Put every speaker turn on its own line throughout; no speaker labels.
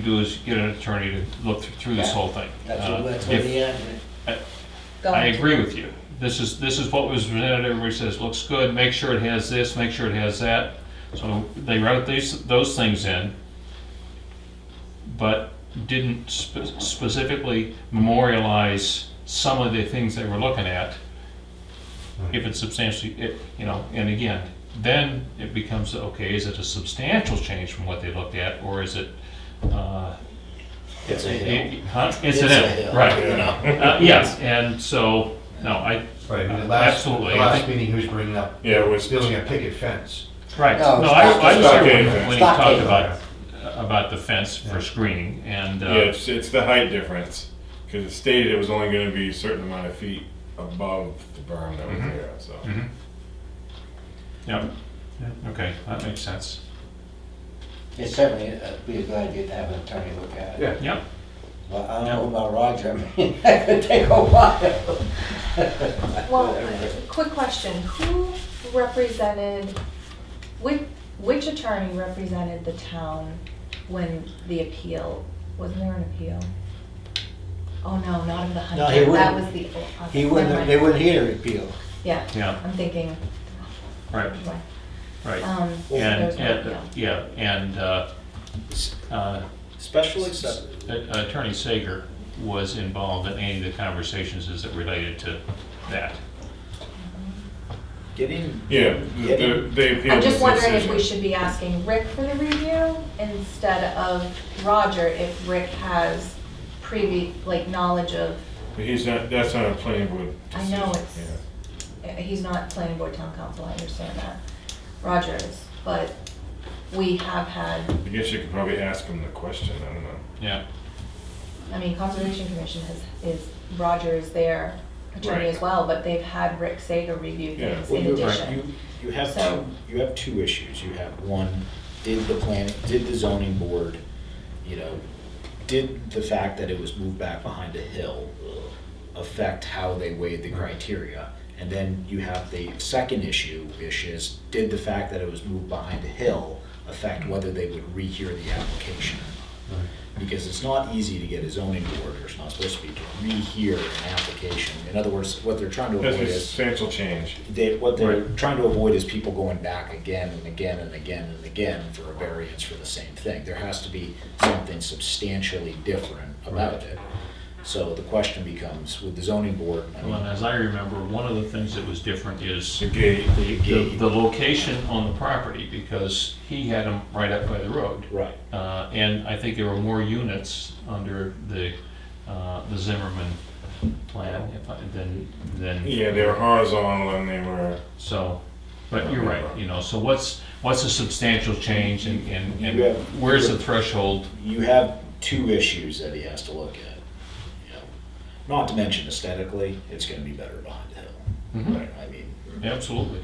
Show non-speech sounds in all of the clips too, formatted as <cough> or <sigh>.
do is get an attorney to look th- through this
Yeah.
whole thing.
That's
Uh,
what, that's
if-
what the argument.
Go
I
on.
agree with you. This is, this is what was presented, everybody says, looks good, make sure it has this, make sure it has that. So they wrote these, those things in, but didn't spe- specifically memorialize some of the things they were looking at.
Hmm.
If it's substantially, it- you know, and again, then it becomes, okay, is it a substantial change from what they looked at, or is it, uh,
It's a hill.
it- huh?
a
incidental,
hill,
right?
you know.
Uh, yes, and so, no, I,
Right, the last, the
absolutely, I
last
think,
meeting, he was bringing up
Uh, Yeah, it was,
building a picket fence.
right,
No,
no, I, I was there
stockade
when,
fence.
when he talked
Stockade.
about, about the fence for screening, and,
yeah,
uh,
it's, it's the height difference, because it stated it was only gonna be a certain amount of feet above the berm that was
Mm-hmm.
there, so.
yeah, okay, that makes sense,
It certainly uh, be a good idea to have an attorney look at it.
Yeah.
yeah,
But I don't know about Roger, I mean, <laughs> that could take a while. <laughs>
Well, uh, quick question, who represented, which, which attorney represented the town when the appeal, wasn't there an appeal? Oh, no, not of the
No, he
Hunter, that was
wouldn't.
the. oh, uh,
He wouldn't,
never
they
mind.
wouldn't hear the appeal.
Yeah,
yeah,
I'm thinking,
right,
what,
right.
um, so
And,
there's no
and,
appeal.
yeah, and, uh, uh,
Special exception.
Attorney Sager was involved in any of the conversations as it related to that.
Getting,
Yeah, the- the- they appealed
I'm
this
just wondering if
decision.
we should be asking Rick for the review instead of Roger, if Rick has previous, like, knowledge of
But he's not, that's not a planning board
I know
decision,
it's- Uh, He's not planning board town council, I understand that. Roger is, but we have had,
yeah. I guess you could probably ask him the question, I don't know.
Yeah,
I mean, Conservation Commission has, is, Roger is their attorney as
Right.
well, but they've had Rick Sager review
Yeah.
things
well,
in
you,
addition.
you, you have
So-
two, you have two issues. You have one, did the planning, did the zoning board, you know, did the fact that it was moved back behind a hill affect how they weighed the criteria? And then you have the second issue, which is, did the fact that it was moved behind a hill affect whether they would rehear the application? because it's not easy to get a zoning board, or it's not supposed to be, to rehear an application. In other words, what they're trying to
Oh,
That's
avoid
a
is,
substantial change.
they, what they're trying to avoid is people going back again and again and again and again for a variance for the same thing. There has to be something substantially different about it. So the question becomes, with the zoning board, I
well, and
mean,
as I remember, one of the things that was different is
The gate,
the, the- the location on the property, because he had them right up by the road.
right,
Uh, and I think there were more units under the, uh, the Zimmerman plan if I- than, than,
yeah, they were horizontal and they were,
so. But you're right, you know, so what's, what's a substantial change and, and,
You
and
have-
where's the threshold?
you have two issues that he has to look at. you know. Not to mention aesthetically, it's gonna be better behind the hill.
Mm-hmm.
Right, I mean,
Absolutely.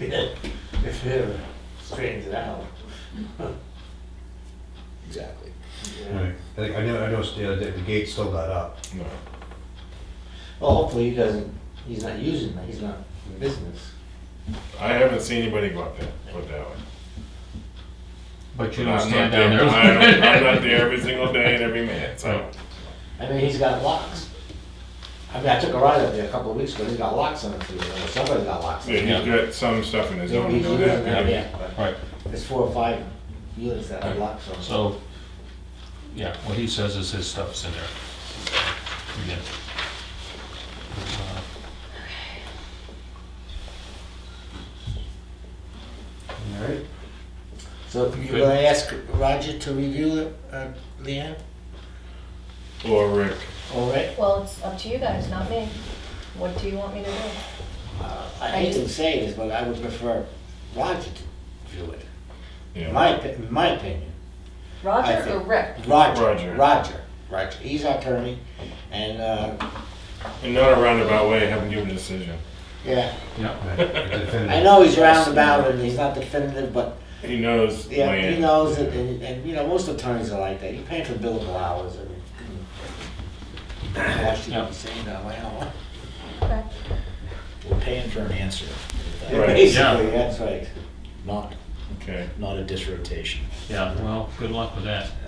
If it ever straightens it out.
exactly.
Right. I think, I know, I noticed the other day, the gate still got
<laughs>
up.
no.
Well, hopefully he doesn't, he's not using that, he's not in business.
I haven't seen anybody go up there, put it that way.
But you
I'm
don't
not
stand down there.
I'm I'm not there every single day and every minute, so.
I mean, he's got locks. I mean, I took a ride up there a couple of weeks ago, he's got locks on it, too, or somebody's got locks on
Yeah,
it.
he's got some stuff in his own.
He's using that,
Yeah.
yeah, but
<laughs> Right,
There's four or five units that have locks on it.
so, yeah, what he says is his stuff's in there. Again.
All right.
So if you're
Good.
gonna ask Roger to review it, uh, Leanne,
Or Rick.
all right?
Well, it's up to you guys, not me. What do you want me to do?
Uh, I hate to say this, but I would prefer Roger to do it, in
Yeah.
my, opi- in my opinion. I
Roger or
think-
Rick?
Roger,
Roger.
Roger, Roger, he's our attorney, and, uh,
In not a roundabout way, have him give a decision.
yeah,
Yeah,
Right, the definitive.
I know he's roundabout and he's not definitive, but
He knows.
Yeah, he
land.
knows it, and, and, you know, most attorneys are like that, you're paying for billable hours, I mean. Washington,
Yeah.
saying that, wow.
Okay.
We're paying for an answer,
<laughs>
Right.
Basically, that's right.
not,
Okay.
not a disrotation.
yeah, well, good luck with that.